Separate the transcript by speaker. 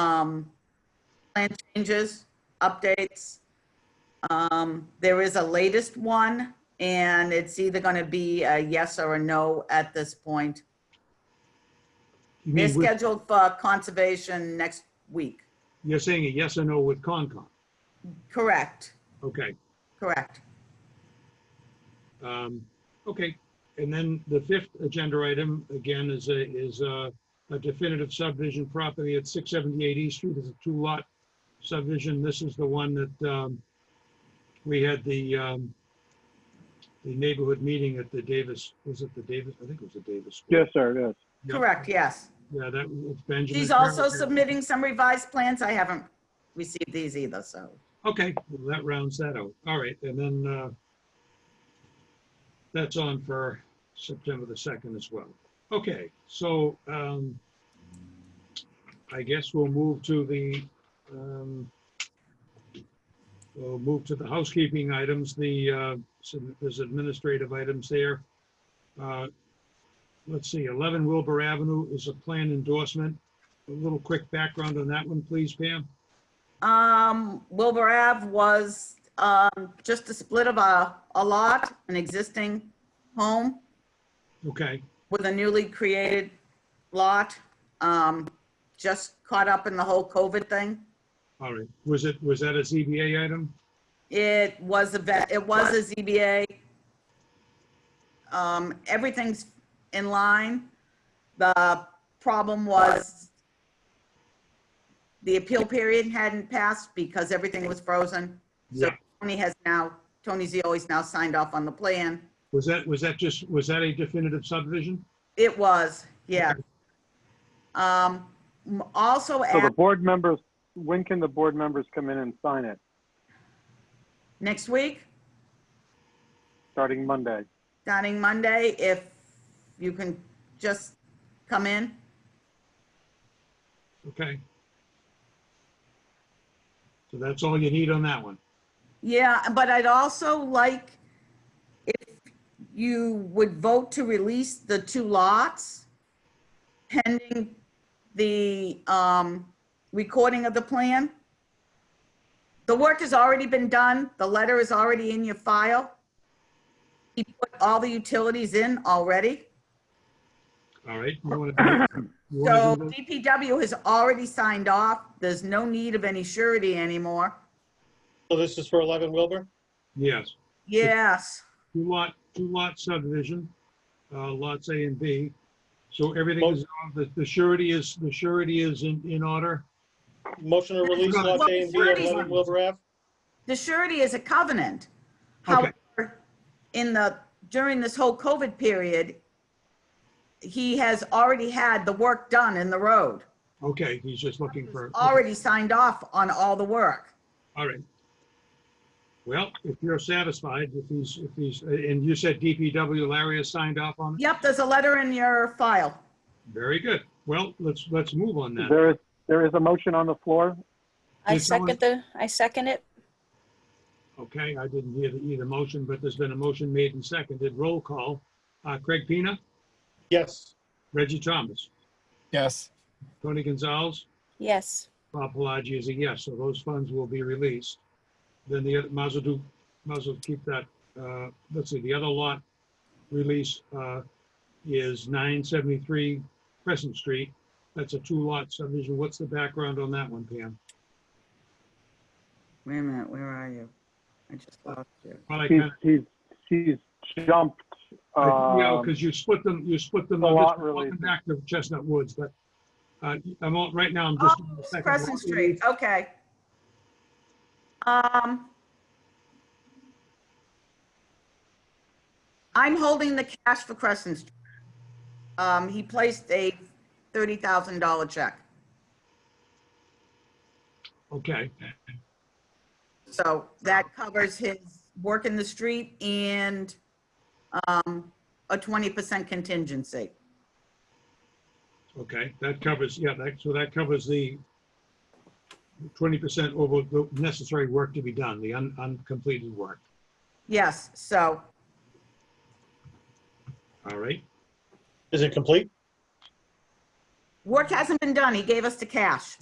Speaker 1: um, plan changes, updates. Um, There is a latest one, and it's either going to be a yes or a no at this point.
Speaker 2: You
Speaker 1: They're
Speaker 2: mean with-
Speaker 1: scheduled for conservation next week.
Speaker 2: You're saying a yes or no with Concom?
Speaker 1: Correct,
Speaker 2: Okay,
Speaker 1: correct.
Speaker 2: um, okay. And then the fifth agenda item, again, is a, is a a definitive subdivision property at six seventy-eight East Street. It's a two-lot subdivision. This is the one that, um, we had the, um, the neighborhood meeting at the Davis, was it the Davis? I think it was the Davis.
Speaker 3: Yes, sir, it is.
Speaker 2: Yeah.
Speaker 1: Correct, yes.
Speaker 2: Yeah, that, it's Benjamin.
Speaker 1: She's also
Speaker 2: Farrow.
Speaker 1: submitting some revised plans. I haven't received these either, so.
Speaker 2: Okay, well, that rounds that out. All right, and then uh, that's on for September the 2nd as well. Okay, so um, I guess we'll move to the, um, we'll move to the housekeeping items, the, uh, some- there's administrative items there. Uh, Let's see, 11 Wilbur Avenue is a plan endorsement. A little quick background on that one, please, Pam?
Speaker 1: Um, Wilbur Ave was, um, just a split of a, a lot, an existing home
Speaker 2: Okay,
Speaker 1: with a newly created lot. Um, just caught up in the whole COVID thing.
Speaker 2: All right, was it, was that a ZBA item?
Speaker 1: It was a vet, it was a ZBA. Um, everything's in line. The problem was the appeal period hadn't passed because everything was frozen. So
Speaker 2: Yeah.
Speaker 1: Tony has now, Tony Zioi's now signed off on the plan.
Speaker 2: Was that, was that just, was that a definitive subdivision?
Speaker 1: It was, yeah. Um, m- also
Speaker 3: So the
Speaker 1: at
Speaker 3: board members, when can the board members come in and sign it?
Speaker 1: next week,
Speaker 3: Starting Monday?
Speaker 1: starting Monday, if you can just come in.
Speaker 2: Okay. So that's all you need on that one.
Speaker 1: Yeah, but I'd also like if you would vote to release the two lots pending the um, recording of the plan. The work has already been done. The letter is already in your file. He put all the utilities in already.
Speaker 2: All right. you wanna- you
Speaker 1: So
Speaker 2: wanna do that?
Speaker 1: DPW has already signed off. There's no need of any surety anymore.
Speaker 4: So this is for 11 Wilbur?
Speaker 2: Yes,
Speaker 1: Yes,
Speaker 2: two lot, two lot subdivision, uh, lots A and B. So everything is, the the surety is, the surety is in, in order?
Speaker 4: Motion to release
Speaker 2: Well,
Speaker 4: lots A and B at 11
Speaker 1: Shirley's-
Speaker 4: Wilbur Ave?
Speaker 1: the surety is a covenant.
Speaker 2: Okay.
Speaker 1: However, in the, during this whole COVID period, he has already had the work done in the road.
Speaker 2: Okay, he's just looking
Speaker 1: He's
Speaker 2: for.
Speaker 1: Already signed off on all the work.
Speaker 2: All right. Well, if you're satisfied, if he's, if he's, and you said DPW Larry has signed off on it?
Speaker 1: Yep, there's a letter in your file.
Speaker 2: Very good. Well, let's, let's move on then.
Speaker 3: There is, there is a motion on the floor.
Speaker 5: I
Speaker 2: Did someone-
Speaker 5: second the, I second it.
Speaker 2: Okay, I didn't hear the, either motion, but there's been a motion made and seconded. Roll call. Uh, Craig Pina,
Speaker 4: Yes.
Speaker 2: Reggie Thomas,
Speaker 6: Yes.
Speaker 2: Tony Gonzalez,
Speaker 5: Yes.
Speaker 2: Bob Pelagi is a yes, so those funds will be released. Then the other, Mazel do, Mazel keep that, uh, let's see, the other lot release, uh, is nine seventy-three Crescent Street. That's a two-lot subdivision. What's the background on that one, Pam?
Speaker 1: Wait a minute, where are you? I just lost you.
Speaker 2: Well, I
Speaker 3: He's,
Speaker 2: kinda-
Speaker 3: he's, he's jumped,
Speaker 2: I- Yeah,
Speaker 3: um,
Speaker 2: because you split them, you split them.
Speaker 3: the
Speaker 2: I'm just
Speaker 3: lot
Speaker 2: walking
Speaker 3: releases.
Speaker 2: Back to Chestnut Woods, but, uh, I'm on, right now, I'm
Speaker 1: Oh,
Speaker 2: just. on the
Speaker 1: it's
Speaker 2: second
Speaker 1: Crescent
Speaker 2: lot.
Speaker 1: Street, okay. Um, I'm holding the cash for Crescent. Street. Um, he placed a $30,000 check.
Speaker 2: Okay,
Speaker 1: So that covers his work in the street and um, a 20% contingency.
Speaker 2: okay, that covers, yeah, that, so that covers the twenty percent over the necessary work to be done, the un, uncompleted work.
Speaker 1: Yes, so
Speaker 2: All right,
Speaker 4: Is it complete?
Speaker 1: work hasn't been done. He gave us the cash.